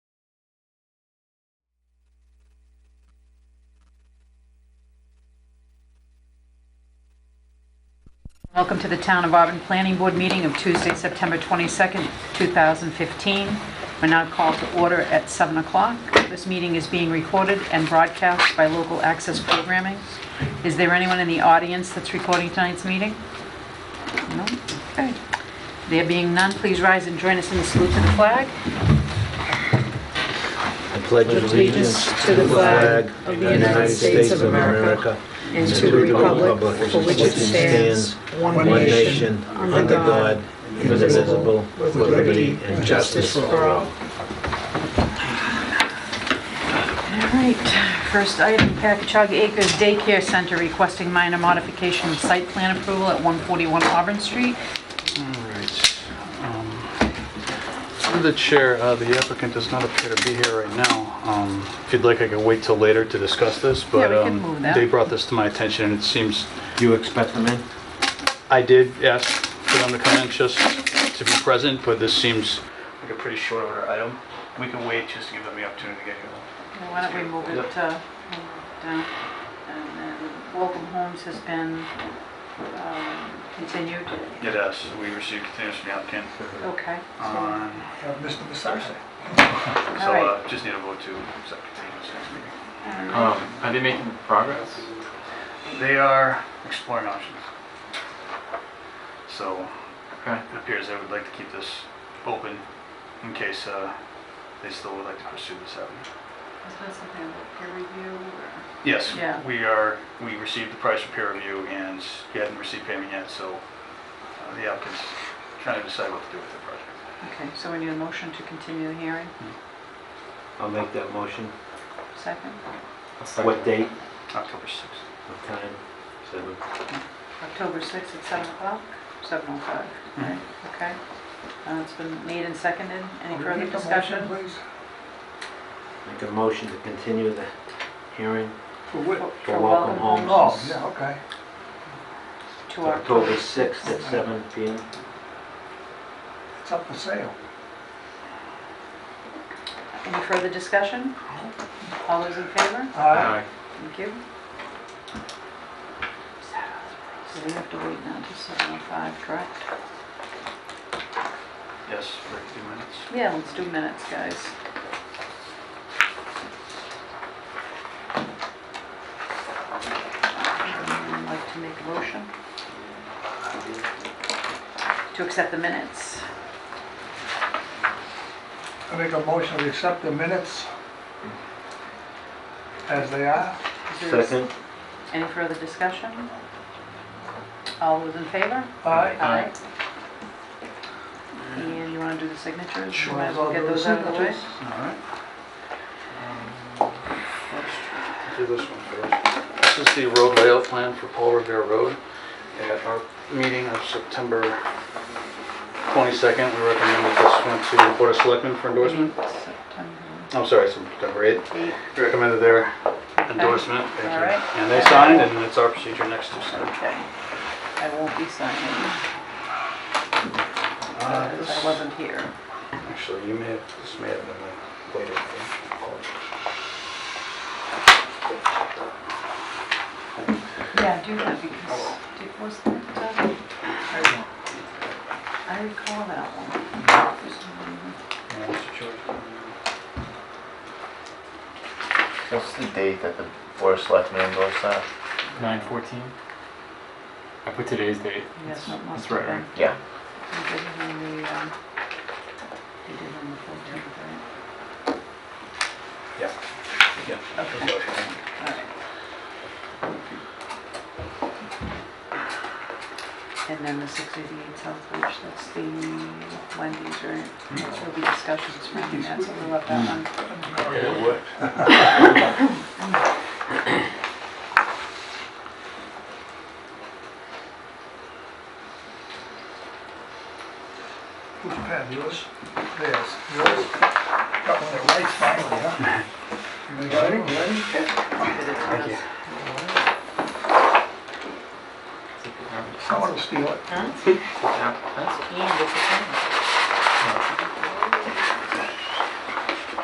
Welcome to the Town of Auburn Planning Board meeting of Tuesday, September 22nd, 2015. We're now called to order at 7 o'clock. This meeting is being recorded and broadcast by local access programming. Is there anyone in the audience that's recording tonight's meeting? No? Okay. There being none, please rise and join us in the salute to the flag. I pledge allegiance to the flag of the United States of America and to the republic for which it stands, one nation, under God, indivisible, with liberty and justice for all. All right, first item, Packagug Acres Daycare Center requesting minor modification of site plan approval at 141 Auburn Street. All right. Um, Through the chair, uh, the applicant does not appear to be here right now. Um, If you'd like, I could wait till later to discuss this, but we can um, move that. they brought this to my attention, and it seems, Do you expect them in? I did ask for them to come in just to be present, but this seems like a pretty short order item. We can wait just to give them the opportunity to get here. Well, Why don't we move it uh, move it down? And then Welcome Homes has been um, continued. It is, we received continuous from the applicant. Okay. so- on- Mr. Bissarci. So right. Um, uh, just need a vote to accept continuance next meeting. Um, are they making progress? They are exploring options. So Okay. it appears they would like to keep this open in case uh, they still would like to pursue this avenue. Is that something about peer review or? Yes, Yeah. we are, we received the price for peer review and we hadn't received payment yet, so uh, the applicant's trying to decide what to do with the project. Okay, so we need a motion to continue the hearing, I'll make that motion. second, A second. What date? October 6th. What time? Seven. October 6th at 7 o'clock, 7:05, right, okay. Uh, It's been made and seconded, any further discussion? Please. Make a motion to continue the hearing For what? For Welcome Homes. Oh, yeah, okay. To to our, October 6th at seven PM. It's up for sale. any further discussion? All those in favor? Uh, Aye. Thank you. So we have to wait now to seven oh five, correct? Yes, for a few minutes. Yeah, let's do minutes, guys. Anyone Like to make a motion? To accept the minutes? I make a motion to accept the minutes as they are. Is there a- Second? Any further discussion? All those in favor? Aye. Aye. And you want to do the signatures? Sure. Might as well get those out of the way. All right. Let's Um, Do this one first. This is the road layout plan for Paul Revere Road. At our meeting of September 22nd, we recommended this one to the Board of Selectmen for endorsement. September I'm sorry, September 8th. Mm-hmm. eighth. We Recommended their endorsement. Thank you. All right. And they signed, and it's our procedure next to sign. Okay, I won't be signing uh, Uh, because Uh, I wasn't here. Actually, you may have, this may have been later. Yeah, do that because, did- was that, uh, I recall that one. What's the date that the Board of Selectmen endorsed that? Nine fourteen. I put today's date. Yes, that must That's have right, been. right? Yeah. He did it on the, um, he did it on the 14th, right? Yeah. Okay, all right. And then the 688 South Beach, that's the Wendy's, right? That's where the discussions around that, so we left that one. It worked. Who's pen, yours? Theirs. Yours? Got one that writes finally, huh? You got it? Ready? Thank you. Someone will steal it. Yeah, that's- And it's a